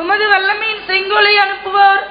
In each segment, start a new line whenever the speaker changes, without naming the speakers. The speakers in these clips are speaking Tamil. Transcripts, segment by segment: உமது வல்லமையின் செங்கோலை அனுப்புவார்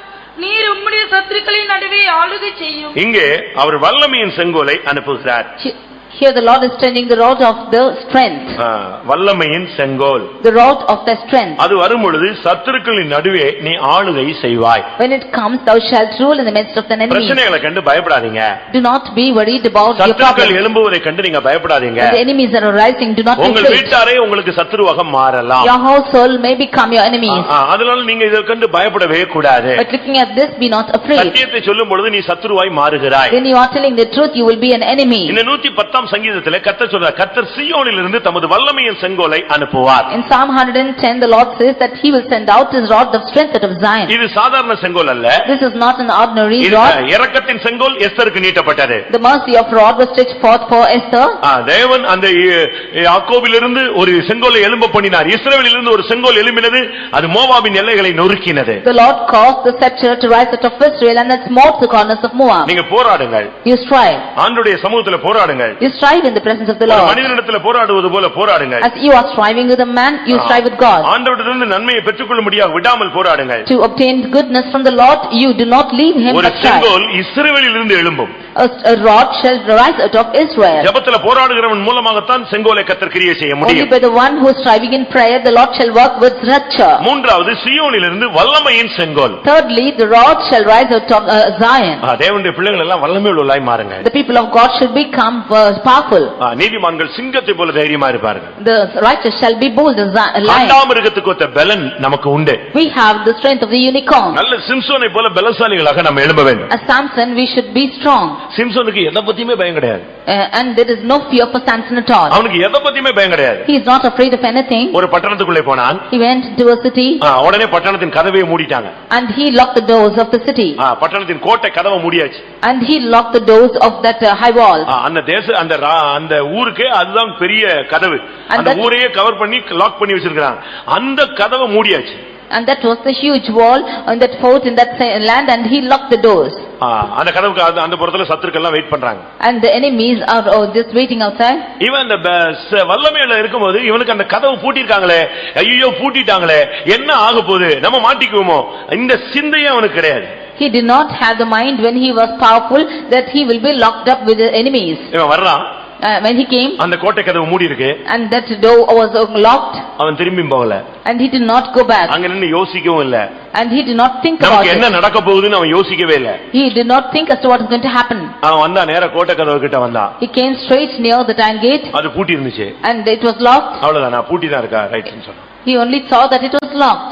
நீர் உம்முடைய சத்துருக்களின் நடுவே ஆளுகை செய்யும்
இங்கே அவர் வல்லமையின் செங்கோலை அனுப்புகிறார்
He- Here the Lord is sending the rod of the strength,
ஆ, வல்லமையின் செங்கோல்
the rod of the strength.
அது வரும்பொழுது சத்துருக்களின் நடுவே நீ ஆளுகை செய்வாய்
When it comes, thou shalt rule in the midst of the enemy.
பிரச்சனைகளை கண்டு பயப்படாதீங்க
Do not be worried about your
சத்துருக்கள்
problems.
எழும்புவதை கண்டு நீங்க பயப்படாதீங்க
When the enemies are arising, do not be
உங்கள்
afraid.
வீட்டாரே உங்களுக்கு சத்துருவாக மாறலாம்
Your household may become your enemies,
ஆ, அதனால நீங்க இதை கண்டு பயப்படவே கூடாது
but looking at this, be not afraid.
சத்தியத்தை சொல்லும் பொழுது நீ சத்துருவாய் மாறுகிறாய்
When you are telling the truth, you will be an enemy.
இந்த நூத்தி பத்தாம் சங்கீதத்திலே கர்த்தர் சொல்றார் கர்த்தர் சியோனிலிருந்து தமது வல்லமையின் செங்கோலை அனுப்புவார்
In Psalm 110, the Lord says that he will send out his rod of strength out of Zion.
இது சாதாரண செங்கோல் அல்ல
This is not an ordinary
இது
rod.
இரக்கத்தின் செங்கோல் எஸ்தருக்கு நீட்டப்பட்டது
The mercy of rod was stretched forth for Esther.
ஆ, தேவன் அந்த இ- யாக்கோபிலிருந்து ஒரு செங்கோலை எழும்ப பண்ணினார் இஸ்ரவேலிலிருந்து ஒரு செங்கோல் எழும்பினது அது மோவாபின் எல்லைகளை நொறுக்கினது
The Lord caused the scepter to rise out of Israel and it smote the corners of Moab.
நீங்க போராடுங்கள்
You strive,
ஆண்டுடைய சமூகத்துல போராடுங்கள்
you strive in the presence of the
ஒரு
Lord.
மனிதனிடத்துல போராடுவது போல போராடுங்கள்
As you are striving with a man, you strive with God.
ஆண்டவரிடமிருந்து நன்மையை பெற்றுக்கொள்ள முடியாது விடாமல் போராடுங்கள்
To obtain goodness from the Lord, you do not leave him
ஒரு
but strive.
செங்கோல் இஸ்ரவேலிலிருந்து எழும்பும்
A a rod shall rise out of Israel.
ஜெபத்துல போராடுகிறவன் மூலமாகத்தான் செங்கோலை கத்தர் கிரியை செய்ய
Only
முடியும்
by the one who is striving in prayer, the Lord shall work with rapture.
மூன்றாவது சியோனிலிருந்து வல்லமையின் செங்கோல்
Thirdly, the rod shall rise out of uh, Zion.
ஆ, தேவனுடைய பிள்ளைகள் எல்லாம் வல்லமை உள்ளவர்களாய் மாறுங்கள்
The people of God should become uh, powerful.
ஆ, நீதிமான்கள் சிங்கத்தை போல தைரியமா இருப்பார்கள்
The righteous shall be bold as zi- lion.
ஆண்டாமிருகத்துக்கு ஒத்த பலன் நமக்கு உண்டு
We have the strength of the unicorn.
நல்ல சிம்சோனை போல பலசாலிகளாக நம்ம எழும்ப வேண்டும்
As Samson, we should be strong,
சிம்சோனுக்கு எதை பத்தியுமே பயம் கிடையாது
uh, and there is no fear for Samson at all.
அவனுக்கு எதை பத்தியுமே பயம் கிடையாது
He is not afraid of anything.
ஒரு பட்டணத்துக்குள்ளே போனான்
He went into a city,
ஆ, உடனே பட்டணத்தின் கதவை மூடிட்டாங்க
and he locked the doors of the city,
ஆ, பட்டணத்தின் கோட்டை கதவை மூடியாச்சு
and he locked the doors of that uh, high
ah,
wall.
அந்த தேச அந்த ரா- அந்த ஊருக்கே அதுதான் பெரிய கதவு
And
அந்த
that-
ஊரையே கவர் பண்ணி லாக் பண்ணி வச்சிருக்காங்க அந்த கதவை மூடியாச்சு
And that was the huge wall on that fort in that sa- land, and he locked the doors.
ஆ, அந்த கதவுக்கு அந்த- அந்த புறத்துல சத்துருக்கள் எல்லாம் வெயிட் பண்றாங்க
And the enemies are oh, just waiting outside.
இவன் அந்த ப- ச- வல்லமையில இருக்கும்போது இவனுக்கு அந்த கதவு பூட்டிருக்காங்களே ஐயோ பூட்டிட்டாங்களே என்ன ஆக போகுது நம்ம மாட்டிக்குவோமோ இந்த சிந்தையே அவனுக்கு கிடையாது
He did not have the mind when he was powerful that he will be locked up with the enemies.
இவன் வர்றான்
Uh, When he came,
அந்த கோட்டை கதவு மூடி இருக்கு
and that door was uh, locked,
அவன் திரும்பி போகல
and he did not go back.
அங்க நின்னு யோசிக்கவும் இல்ல
And he did not think about
நமக்கு
it.
என்ன நடக்க போகுதுன்னு அவன் யோசிக்கவே இல்ல
He did not think as to what is going to happen.
அவன் வந்தா நேர கோட்டை கதவு கிட்ட வந்தான்
He came straight near the iron gate
அது பூட்டி இருந்துச்சு
and it was locked.
அவ்வளவுதான் நான் பூட்டி தான் இருக்கா ரைட்னு சொன்னான்
He only saw that it was locked.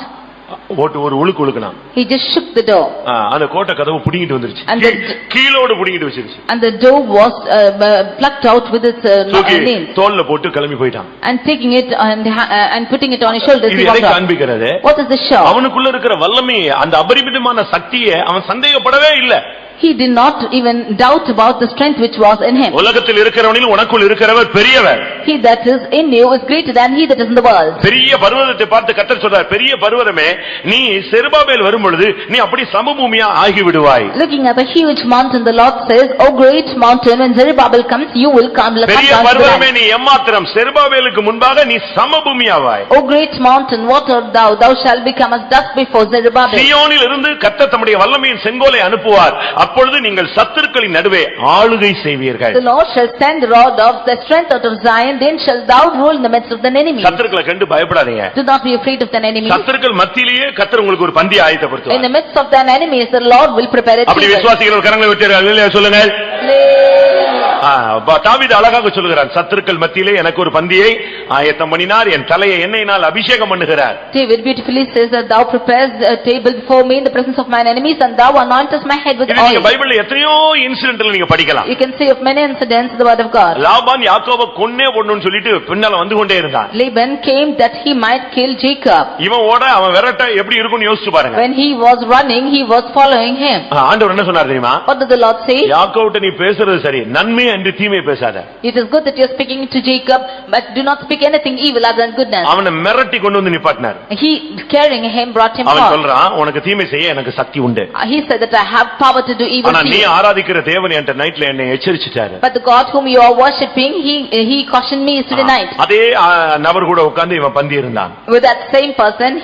ஓட்டு ஒரு உழுக்கு உழுக்குனான்
He just shook the door
ஆ, அந்த கோட்டை கதவு புடிங்கிட்டு வந்துருச்சு
And
கீ-
the-
கீழோடு புடிங்கிட்டு வச்சிருச்சு
and the door was uh, uh, plucked out with its uh,
தூக்கி
nails.
தோல்ல போட்டு கிளம்பி போயிட்டான்
And taking it and ha- uh, and putting it on his shoulders,
இது
he
எதை
walked out.
காண்பிக்கிறது
What is the show?
அவனுக்குள்ள இருக்கிற வல்லமையை அந்த அபரிமிதமான சக்தியை அவன் சந்தேகப்படவே இல்ல
He did not even doubt about the strength which was in him.
உலகத்தில் இருக்கிறவனில் உனக்குள் இருக்கிறவர் பெரியவர்
He that is in you is greater than he that is in the world.
பெரிய பர்வதத்தை பார்த்து கத்தர் சொல்றார் பெரிய பர்வதமே நீ செருபாபேல் வரும்பொழுது நீ அப்படி சமபூமியா ஆகிவிடுவாய்
Looking at the huge mountain, the Lord says, "O great mountain, when Zerubbabel comes, you will come." come
பெரிய
down to the land."
பர்வதமே நீ எம்மாத்திரம் செருபாபேலுக்கு முன்பாக நீ சமபூமியாவாய்
O great mountain, what art thou? Thou shalt become as dust before Zerubbabel.
சியோனில் இருந்து கர்த்தர் தம்முடைய வல்லமையின் செங்கோலை அனுப்புவார் அப்பொழுது நீங்கள் சத்துருக்களின் நடுவே ஆளுகை செய்வீர்கள்
The Lord shall send the rod of the strength out of Zion, then shalt thou rule in the midst of thine enemy.
சத்துருக்களை கண்டு பயப்படாதீங்க
Do not be afraid of thine enemy.
சத்துருக்கள் மத்தியிலேயே கர்த்தர் உங்களுக்கு ஒரு பந்தி
In the
ஆயத்தப்படுத்துவார்
midst of thine enemies, the Lord will prepare a
அப்படி
table.
விசுவாசிகள் கரங்களை விட்டீர்கள் இல்லையா சொல்லுங்க
Hallelujah.
ஆ, ப- தாவீது அழகாக சொல்லுகிறார் சத்துருக்கள் மத்தியிலே எனக்கு ஒரு பந்தியை ஆயத்தம் பண்ணினார் என் தலையை எண்ணெயினால் அபிஷேகம் பண்ணுகிறார்
David beautifully says that thou prepares a table before me in the presence of mine enemies, and thou anointest my head with
இது நீங்க
oil.
பைபிள்ல எத்தனையோ இன்சிடென்ட்ல நீங்க படிக்கலாம்
You can see of many incidents in the word of God.
Laban யாக்கோப கொன்னே போடணும்னு சொல்லிட்டு பின்னால வந்து கொண்டே இருந்தான்
Laban came that he might kill Jacob.
இவன் ஓட அவன் விரட்ட எப்படி இருக்கும்னு யோசிச்சு பாருங்க
When he was running, he was following him.
ஆ, ஆண்டவர் என்ன சொன்னார் தெரியுமா
What did the Lord say?
யாக்கோவிட்ட நீ பேசுறது சரி நன்மை அன்று தீமை பேசாத
It is good that you are speaking to Jacob, but do not speak anything evil other than goodness.
அவனை மிரட்டி கொண்டு வந்து நிப்பாட்டினார்
He carrying him brought him
அவன்
forth.
சொல்றான் உனக்கு தீமை செய்ய எனக்கு சக்தி உண்டு
Uh, He said that I have power to do evil
ஆனா
to
நீ
you.
ஆராதிக்கிற தேவன் என்கிட்ட நைட்ல என்னை எச்சரிச்சிட்டாரு
But the God whom you are worshipping, he he cautioned me yesterday night.
அதே ஆ, நபர் கூட உட்கார்ந்து இவன் பந்தி இருந்தான்
With that same person,